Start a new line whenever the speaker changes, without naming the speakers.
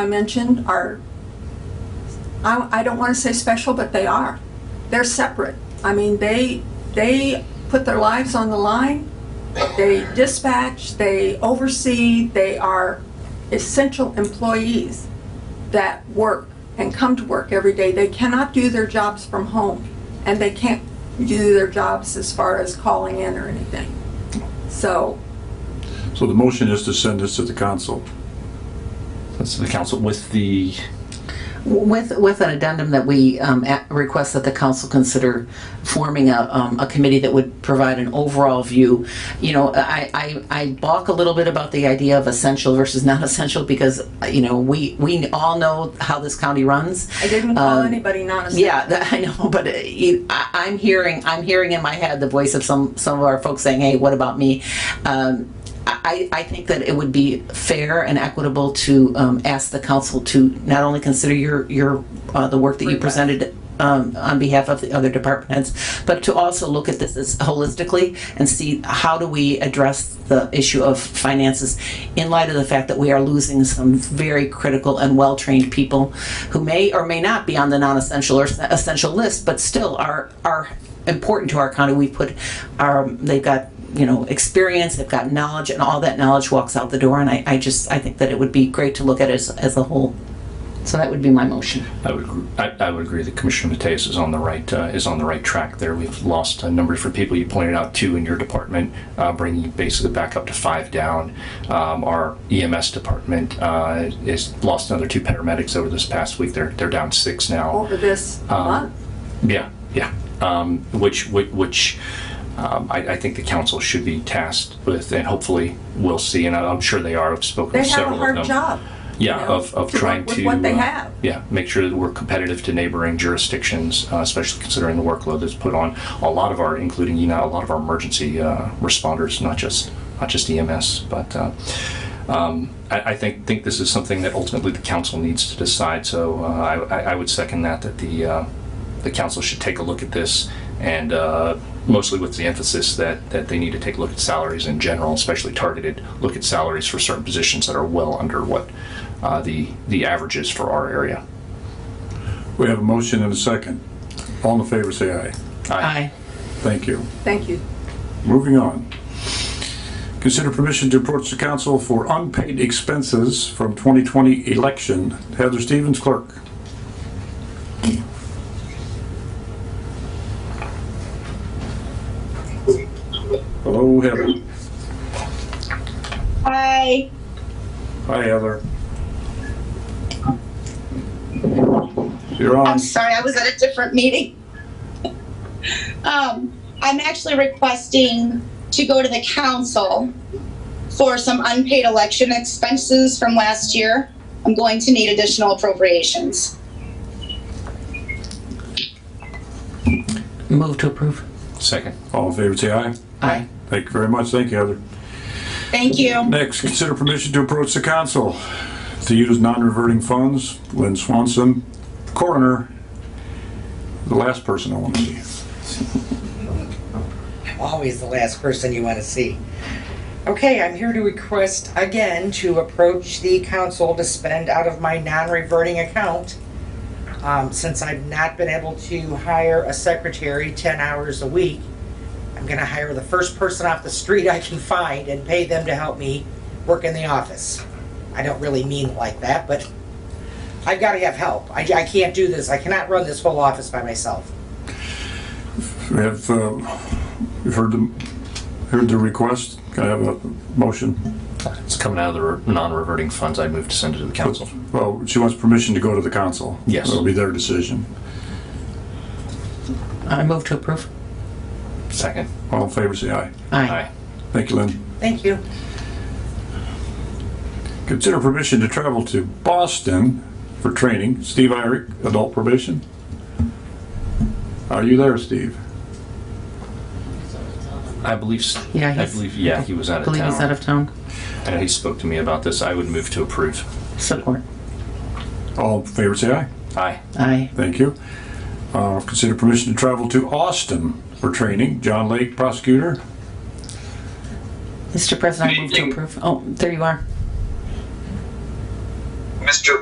I mentioned are, I, I don't want to say special, but they are. They're separate. I mean, they, they put their lives on the line. They dispatch, they oversee, they are essential employees that work and come to work every day. They cannot do their jobs from home and they can't do their jobs as far as calling in or anything. So,
So the motion is to send this to the council.
That's the council with the,
With, with an addendum that we um, a- request that the council consider forming a, um, a committee that would provide an overall view. You know, I, I, I balk a little bit about the idea of essential versus non-essential because, you know, we, we all know how this county runs.
I didn't call
Um,
anybody non-essential.
Yeah, that, I know, but uh, you, I, I'm hearing, I'm hearing in my head the voice of some, some of our folks saying, "Hey, what about me?" Um, I, I think that it would be fair and equitable to um, ask the council to not only consider your your uh, the work that you presented. Um, on behalf of the other departments, but to also look at this as holistically and see how do we address the issue of finances in light of the fact that we are losing some very critical and well-trained people who may or may not be on the non-essential or s- essential list, but still are, are important to our county. We put our, they've got, you know, experience, they've got knowledge, and all that knowledge walks out the door. And I, I just, I think that it would be great to look at it as, as a whole. So that would be my motion.
I would, gr- I, I would agree that Commissioner Mateus is on the right, uh, is on the right track there. We've lost a number for people. You pointed out two in your department, uh, bringing you basically back up to five down. Um, our EMS department, uh, is lost another two paramedics over this past week. They're, they're down six now.
over this
Um,
month.
Yeah, yeah. Um, which, which, which um, I, I think the council should be tasked with, and hopefully we'll see. And I'm sure they are. I've spoken
They
to
have a
several of them.
hard job.
Yeah,
you know,
of, of
to work
trying
with
to.
what they
uh,
have.
Yeah, make sure that we're competitive to neighboring jurisdictions, uh, especially considering the workload that's put on a lot of our, including, you know, a lot of our emergency uh, responders, not just, not just EMS, but uh, um, I, I think, think this is something that ultimately the council needs to decide, so uh, I, I- I would second that, that the, uh, the council should take a look at this, and uh, mostly with the emphasis that, that they need to take a look at salaries in general, especially targeted, look at salaries for certain positions that are well under what uh, the, the average is for our area.
We have a motion and a second. All in favor, say aye.
Aye.
Thank you.
Thank you.
Moving on. Consider permission to approach the council for unpaid expenses from 2020 election. Heather Stevens, clerk. Hello, Heather.
Hi.
Hi, Heather. You're on.
I'm sorry, I was at a different meeting. Um, I'm actually requesting to go to the council for some unpaid election expenses from last year. I'm going to need additional appropriations.
Move to approve.
Second.
All in favor, say aye.
Aye.
Thank you very much. Thank you, Heather.
Thank you.
Next, consider permission to approach the council to use non-reverting funds. Lynn Swanson, coroner, the last person I want to see.
always the last person you want to see. Okay, I'm here to request again to approach the council to spend out of my non-reverting account. Um, since I've not been able to hire a secretary ten hours a week, I'm gonna hire the first person off the street I can find and pay them to help me work in the office. I don't really mean it like that, but I've gotta have help. I, I can't do this. I cannot run this whole office by myself.
We have, uh, you've heard the, heard the request. Can I have a motion?
It's coming out of the re- non-reverting funds. I move to send it to the council.
Well, she wants permission to go to the council.
Yes.
It'll be their decision.
I move to approve.
Second.
All in favor, say aye.
Aye.
Aye.
Thank you, Lynn.
Thank you.
Consider permission to travel to Boston for training. Steve Irick, adult probation. Are you there, Steve?
I believe, s-
Yeah,
I
he's-
believe, yeah, he was out of town.
Believe he's out of town.
I know he spoke to me about this. I would move to approve.
Support.
All in favor, say aye.
Aye.
Aye.
Thank you. Uh, Consider permission to travel to Austin for training. John Lake, prosecutor.
Mr. President, I move to approve. Oh, there you are.
Mr.